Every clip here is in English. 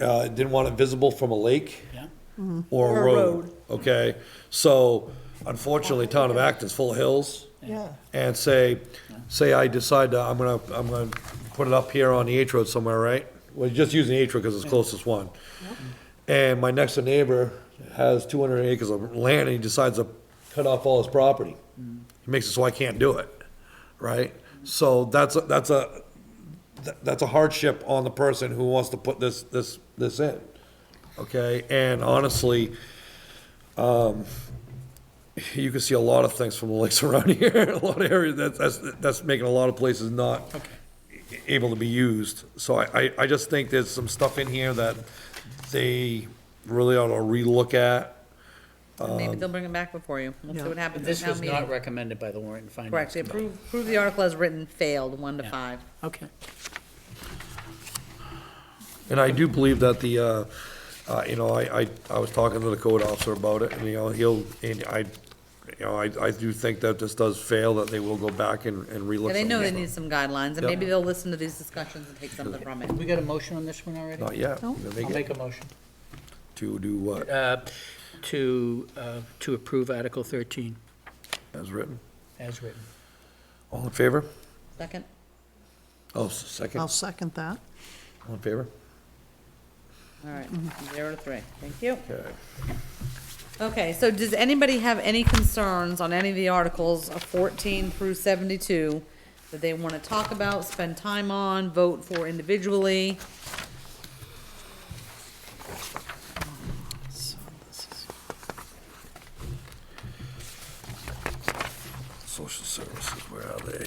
uh, didn't want it visible from a lake Yeah. or Mm-hmm. Or a a road, road. okay? So unfortunately, town of Acton's full of hills. Yeah. And say, say I decide to, I'm gonna, I'm gonna put it up here on the H road somewhere, right? Well, just using the H road because it's the closest one. And my next door neighbor has two hundred acres of land and he decides to cut off all his property. Mm. He makes it so I can't do it, right? So that's, a- that's a, th- that's a hardship on the person who wants to put this, this, this in, okay? And honestly, um, you can see a lot of things from the lakes around here, a lot of areas, that's, that's, that's making a lot of places not able to be used. So I, I, I just think there's some stuff in here that they really ought to relook at. Maybe Um, they'll bring it back before you. We'll see what happens at This town was not meeting. recommended by the warrant and finance. Correct, They committee. approve, approve the article as written, failed, one to five. Okay. And I do believe that the, uh, uh, you know, I, I, I was talking to the code officer about it, and, you know, he'll, and I, you know, I, I do think that this does fail, that they will go back and, and relook. Yeah, they some know of they it. need some guidelines, and Yep. maybe they'll listen to these discussions and take something from Mm-hmm. it. We got a motion on this one already? Not yet. No. They I'll get make a motion To do what, uh, to, uh, to approve Article 13 as written? as written. All in favor? Second? Oh, second, I'll second that. all in favor? All right, zero to three. Thank you. Okay. Okay, so does anybody have any concerns on any of the articles of fourteen through seventy-two that they want to talk about, spend time on, vote for individually? Social services, where are they?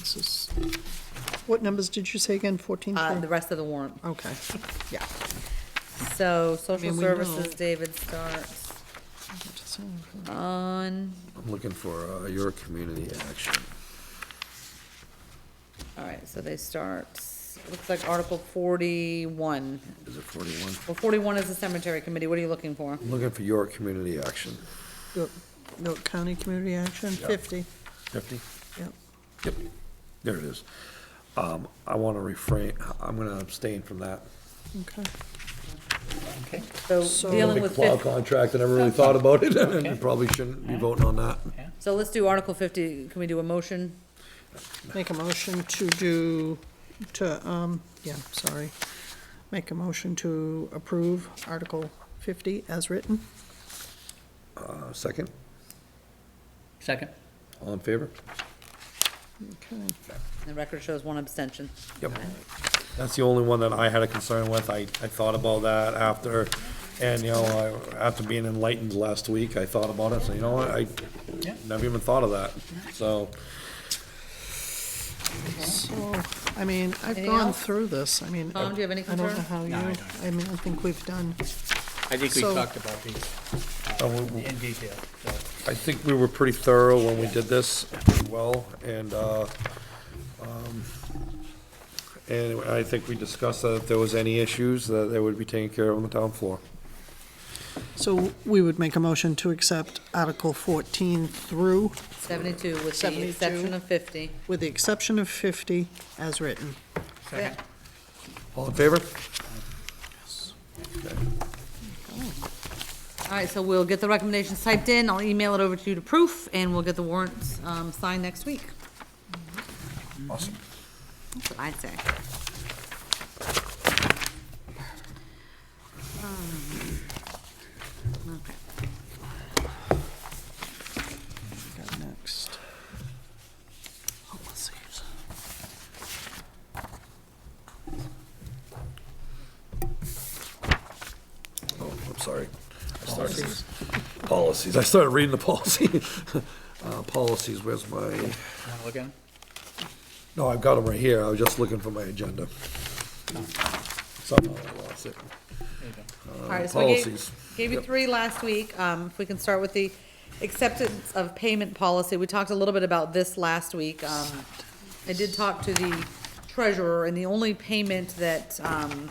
This is, what numbers did you say again, 14? Uh, the rest of the warrant. Okay, yeah. So, social mean, we services, know. David starts on, I'm looking for uh, your community action. all right, so they start, looks like Article forty-one. Is it 41? Well, forty-one is the cemetery committee. What are you looking for? I'm looking for your community action. York York County Community Action, 50, 50? yep. Yep. There it is. Um, I want to refrain, I'm going to abstain from that. Okay. Okay. So So- dealing Big with plow fifty. contract, I never really thought about it, and probably shouldn't be voting on that. So let's do Article fifty, can we do a motion? Make a motion to do, to, um, yeah, sorry. Make a motion to approve Article 50 as written. Uh, Second, Second? all in favor? Okay. The record shows one abstention. Yep. That's the only one that I had a concern with. I, I thought about that after, and, you know, I- after being enlightened last week, I thought about it, so you know what, I Yeah. never even thought of that, so. So, I mean, I've Anything gone else? through this, I mean. I- Tom, do you have any I don't know concern? how I you, don't. I mean, I think we've done, I think we So- talked about these uh, we- in detail. so. I think we were pretty thorough when we did this, well, and, uh, um, and I think we discussed that if there was any issues, that they would be taken care of on the town floor. so we would make a motion to accept Article 14 through, Seventy-two with the 72. exception of fifty. with the exception of 50, as written. Second. All in favor? All right, so we'll get the recommendations typed in, I'll email it over to you to proof, and we'll get the warrants, um, signed next week. Awesome. That's what I'd say. Um, Okay. Got next. Oh, Policies. Oh, I'm sorry. I started, policies, I started reading the policy. Uh, policies, where's my, Want to look at 'em? no, I've got them right here, I was just looking for my agenda. Somehow I lost it. There you go. All right, so we policies. gave, gave you three last week. Um, if we can start with the acceptance of payment policy, we talked a little bit about this last week. Um, I did talk to the treasurer, and the only payment that, um,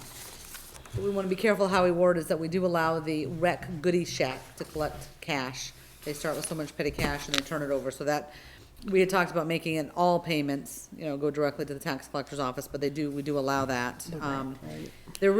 that we want to be careful how we word is that we do allow the rec goodie shack to collect cash. They start with so much petty cash and they turn it over, so that, we had talked about making it all payments, you know, go directly to the tax collector's office, but they do, we do allow that. Um, There